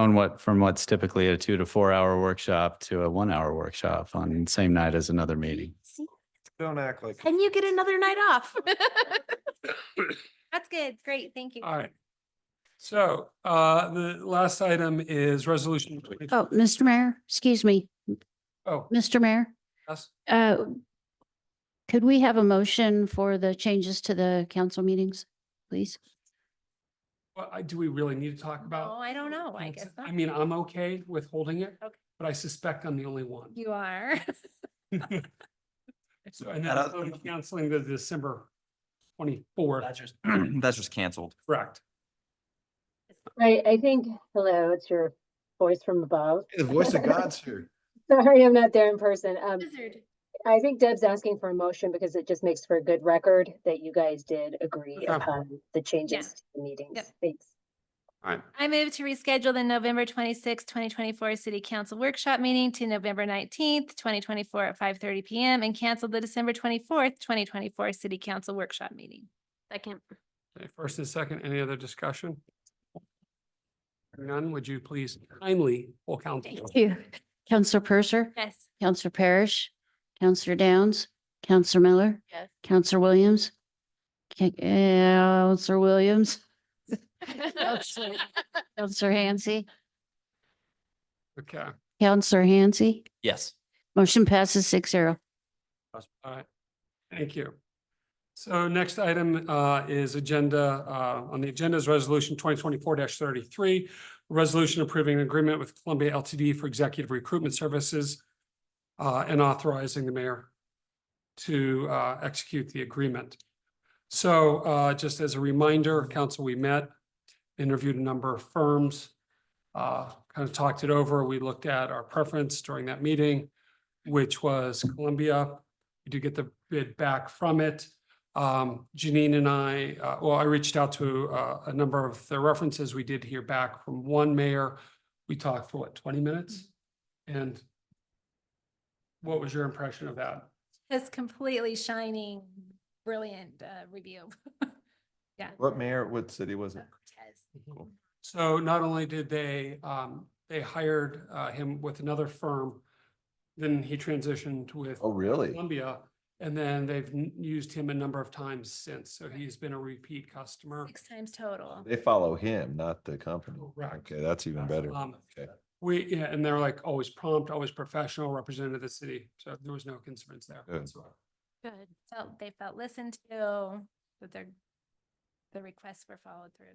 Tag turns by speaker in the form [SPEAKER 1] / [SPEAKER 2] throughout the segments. [SPEAKER 1] on what, from what's typically a two to four hour workshop to a one hour workshop on the same night as another meeting.
[SPEAKER 2] See,
[SPEAKER 3] Don't act like.
[SPEAKER 2] and you get another night off. That's good. Great. Thank you.
[SPEAKER 4] All right. So uh, the last item is resolution. 20
[SPEAKER 5] Oh, Mr. Mayor, excuse me,
[SPEAKER 4] Oh,
[SPEAKER 5] Mr. Mayor,
[SPEAKER 4] yes.
[SPEAKER 5] uh, could we have a motion for the changes to the council meetings, please?
[SPEAKER 4] Well, I, do we really need to talk
[SPEAKER 2] No,
[SPEAKER 4] about?
[SPEAKER 2] Oh, I don't know. I guess
[SPEAKER 4] I
[SPEAKER 2] not.
[SPEAKER 4] mean, I'm okay with holding it,
[SPEAKER 2] Okay.
[SPEAKER 4] but I suspect I'm the only one.
[SPEAKER 2] You are.
[SPEAKER 4] So and
[SPEAKER 6] That
[SPEAKER 4] then
[SPEAKER 6] other-
[SPEAKER 4] I'm canceling the December twenty-fourth,
[SPEAKER 6] That's just, that's just canceled.
[SPEAKER 4] correct?
[SPEAKER 7] I, I think, hello, it's your voice from above.
[SPEAKER 3] The voice of God's here.
[SPEAKER 7] Sorry, I'm not there in person. Um,
[SPEAKER 2] Wizard.
[SPEAKER 7] I think Deb's asking for a motion because it just makes for a good record that you guys did agree
[SPEAKER 4] Okay.
[SPEAKER 7] upon the changes to the meetings.
[SPEAKER 2] Yep.
[SPEAKER 7] Thanks.
[SPEAKER 2] I move to reschedule the November twenty sixth, twenty twenty four city council workshop meeting to November nineteenth, twenty twenty four at five thirty PM and cancel the December twenty fourth, twenty twenty four city council workshop meeting. Second.
[SPEAKER 4] Okay, First and second, any other discussion? None, would you please kindly pull council?
[SPEAKER 2] Thank you.
[SPEAKER 5] Counselor Purser,
[SPEAKER 2] Yes.
[SPEAKER 5] Counselor Parrish, Counselor Downs, Counselor Miller,
[SPEAKER 2] Yes.
[SPEAKER 5] Counselor Williams, Ca- Counselor Williams, Counselor Counselor Hansi,
[SPEAKER 4] Okay,
[SPEAKER 5] Counselor Hansi.
[SPEAKER 6] Yes.
[SPEAKER 5] Motion passes six zero.
[SPEAKER 4] all right. Thank you. So next item uh, is agenda, uh, on the agenda is resolution twenty twenty-four thirty-three. Resolution approving an agreement with Columbia LTD for executive recruitment services uh, and authorizing the mayor to uh, execute the agreement. So uh, just as a reminder, council, we met, interviewed a number of firms, uh, kind of talked it over. We looked at our preference during that meeting, which was Columbia. We do get the bid back from it. Um, Janine and I, uh, well, I reached out to, uh, a number of the references. We did hear back from one mayor. We talked for what, twenty minutes? And what was your impression of that?
[SPEAKER 2] This completely shining, brilliant uh, review. Yeah.
[SPEAKER 3] What mayor, what city was it?
[SPEAKER 2] Cortez.
[SPEAKER 3] Cool.
[SPEAKER 4] So not only did they, um, they hired, uh, him with another firm, then he transitioned with
[SPEAKER 3] Oh, really?
[SPEAKER 4] Columbia, and then they've n- used him a number of times since. So he's been a repeat customer.
[SPEAKER 2] Six times total.
[SPEAKER 3] They follow him, not the company.
[SPEAKER 4] Correct.
[SPEAKER 3] Okay, that's even better.
[SPEAKER 4] Um,
[SPEAKER 3] Okay.
[SPEAKER 4] We, yeah, and they're like always prompt, always professional, representative of the city. So there was no concerns there.
[SPEAKER 3] Good.
[SPEAKER 4] whatsoever.
[SPEAKER 2] Good. Felt, they felt listened to, that their, the requests were followed through.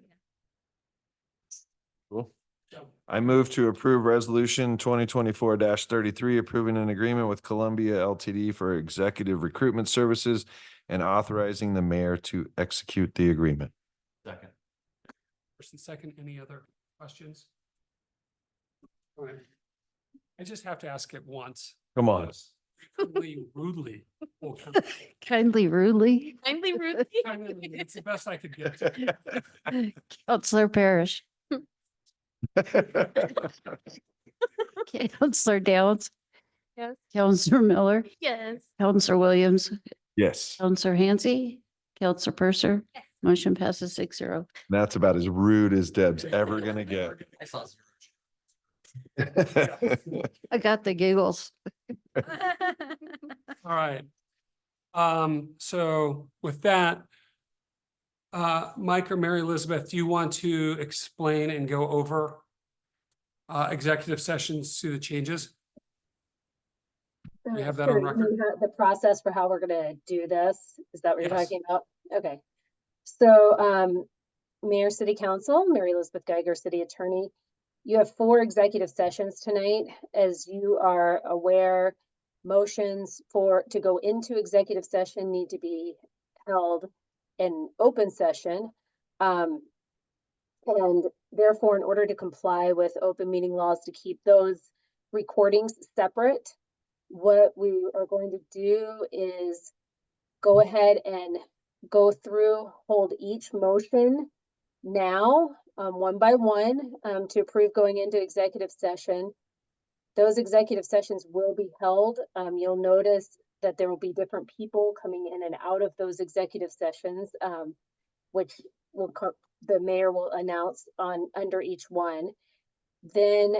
[SPEAKER 3] Cool.
[SPEAKER 4] So,
[SPEAKER 3] I move to approve resolution twenty twenty-four thirty-three, approving an agreement with Columbia LTD for executive recruitment services and authorizing the mayor to execute the agreement.
[SPEAKER 6] Second.
[SPEAKER 4] First and second, any other questions? All right. I just have to ask it once.
[SPEAKER 3] Come on.
[SPEAKER 4] Rudely, rudely. will come.
[SPEAKER 5] Kindly rudely,
[SPEAKER 2] Kindly Ruthie.
[SPEAKER 4] I mean, It's the best I could get. to.
[SPEAKER 5] Counselor Parrish, Counselor Downs,
[SPEAKER 2] Yes.
[SPEAKER 5] Counselor Miller,
[SPEAKER 2] Yes.
[SPEAKER 5] Counselor Williams,
[SPEAKER 3] Yes,
[SPEAKER 5] Counselor Hansi, Counselor Purser.
[SPEAKER 2] Yes.
[SPEAKER 5] Motion passes six zero.
[SPEAKER 3] that's about as rude as Deb's ever gonna get.
[SPEAKER 6] I saw zero.
[SPEAKER 5] I got the giggles.
[SPEAKER 4] All right. Um, so with that, uh, Mike or Mary Elizabeth, do you want to explain and go over uh, executive sessions to the changes? We
[SPEAKER 7] Uh,
[SPEAKER 4] have that on
[SPEAKER 7] sure, you
[SPEAKER 4] record.
[SPEAKER 7] mean The the process for how we're gonna do this, is that what you're
[SPEAKER 4] Yes.
[SPEAKER 7] talking about? Okay. So, um, Mayor, City Council, Mary Elizabeth Geiger, City Attorney, you have four executive sessions tonight. As you are aware, motions for, to go into executive session need to be held in open session. Um, and therefore, in order to comply with open meeting laws to keep those recordings separate, what we are going to do is go ahead and go through, hold each motion now, um, one by one, um, to approve going into executive session. Those executive sessions will be held. Um, you'll notice that there will be different people coming in and out of those executive sessions, um, which will, co- the mayor will announce on, under each one. Then